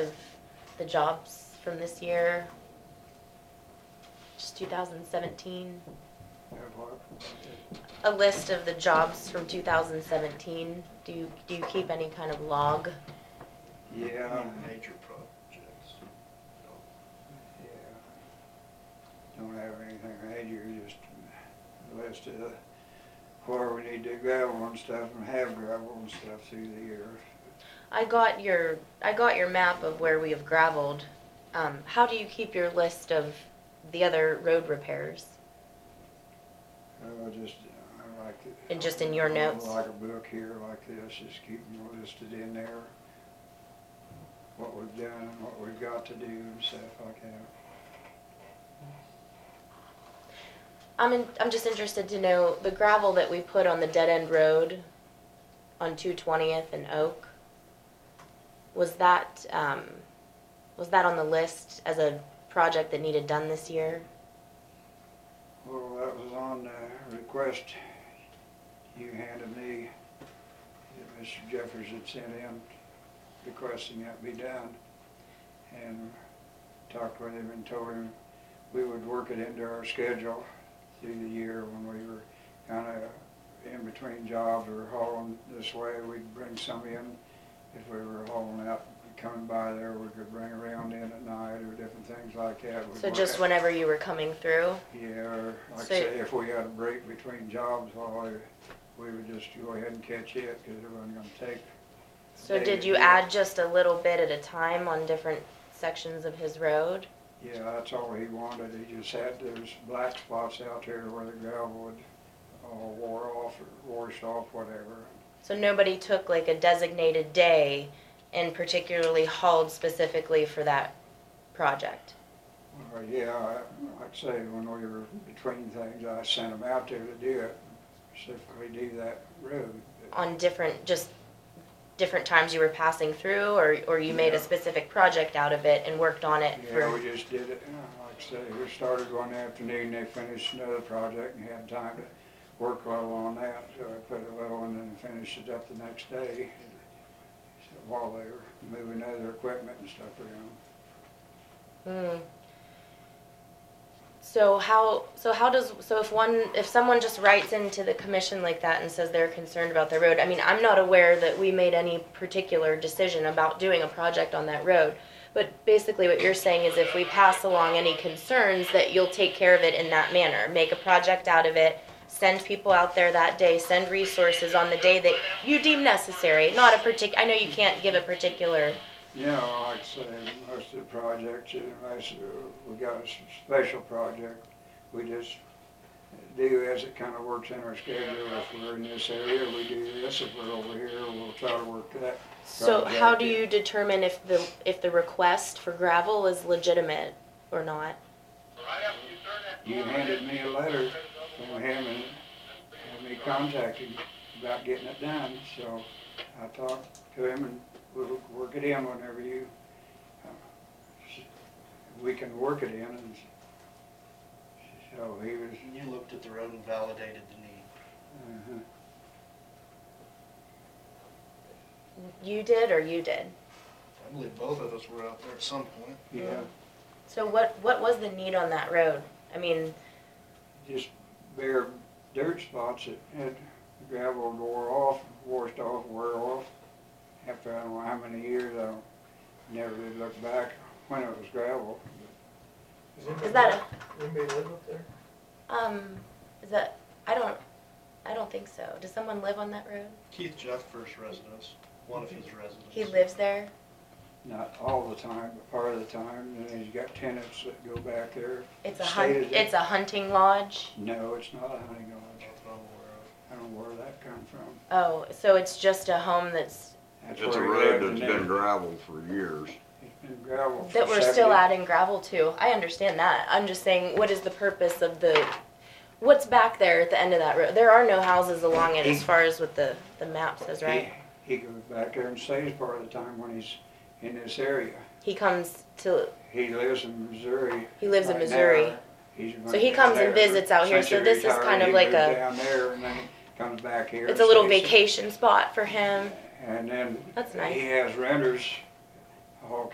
the jobs from this year. Just two thousand seventeen, a list of the jobs from two thousand seventeen. Do you, do you keep any kind of log? Yeah, Major projects. yeah. Don't have anything major, just a list of where we need to gravel and stuff and have gravel and stuff through the year. I got your, I got your map of where we have gravelled. Um, how do you keep your list of the other road repairs? Oh, I was just, I like it. And just in your notes? Like a book here like this, just keeping listed in there. What we've done, what we've got to do and stuff like that. I'm in, I'm just interested to know the gravel that we put on the dead end road on two twentieth and Oak. Was that, um, was that on the list as a project that needed done this year? Well, that was on the request you handed me, that Mr. Jeffers had sent in, requesting that be done. And talked with him and told him we would work it into our schedule through the year when we were kinda in between jobs or hauling this way, we'd bring some in. If we were hauling out, coming by there, we could bring around in at night or different things like that. We'd So work just it. whenever you were coming through? Yeah, or like I So- say, if we had a break between jobs, well, I- we would just go ahead and catch it, cause it wasn't gonna take. So They did would you do it. add just a little bit at a time on different sections of his road? Yeah, that's all he wanted, he just had those black spots out there where the gravel would, uh, wore off or washed off, whatever. So nobody took like a designated day and particularly hauled specifically for that project? Or, Uh, yeah, I- like I say, when we were between things, I sent him out there to do it, specifically do that road. on different, just different times you were passing through, or, or you made a Yeah. specific project out of it and worked on it Yeah, for, we just did it, uh, like I say, we started one afternoon, they finished another project and had time to work a little on that, so I put a little in and finished it up the next day. So While they were moving other equipment and stuff around. Hmm. So how, so how does, so if one, if someone just writes into the commission like that and says they're concerned about their road, I mean, I'm not aware that we made any particular decision about doing a project on that road. But basically what you're saying is if we pass along any concerns, that you'll take care of it in that manner, make a project out of it, send people out there that day, send resources on the day that you deem necessary, not a partic, I know you can't give a particular, You know, like I say, most of the projects, unless we got a s- special project, we just do as it kind of works in our schedule. If we're in this area, we do this. If we're over here, we'll try to work that. So how do Right, yeah. you determine if the, if the request for gravel is legitimate or not? You handed me a letter from him and had me contact him about getting it done, so I talked to him and we'll work it in whenever you, uh, we can work it in and so he was, And you looked at the road and validated the need. uh-huh. You did or you did? I believe both of us were out there at some point. yeah, So what, what was the need on that road? I mean, just bare dirt spots that had gravel wore off, washed off, wore off. After I don't know how many years, I don't- never really looked back when it was gravel. is that Anybody live up there? a, um, is that, I don't, I don't think so. Does someone live on that road? Keith Jeffers' residence, one of his residences. He lives there? not all the time, but part of the time, and then you got tenants that go back there. It's a Stay hun, there. it's a hunting lodge? No, it's not a hunting lodge. That's what I'm aware of. I don't know where that come from. Oh, so it's just a home that's, That's It's a where he road lived, that's been and then gravel for years. It's been gravel for that we're still 70 adding gravel to. I understand that. I'm just saying, what is the purpose of the, what's back there at the end of that road? There are no houses along it as far as what the, the map says, right? He he goes back there and stays part of the time when he's in this area. He comes to, He lives in Missouri. he lives in right now. Missouri. He's So he down comes and there. visits out here, Since so he this is retired, kind of he like moved a- Down there and then comes back here. It's a and little stays. vacation spot for him. And then That's nice. he has renters all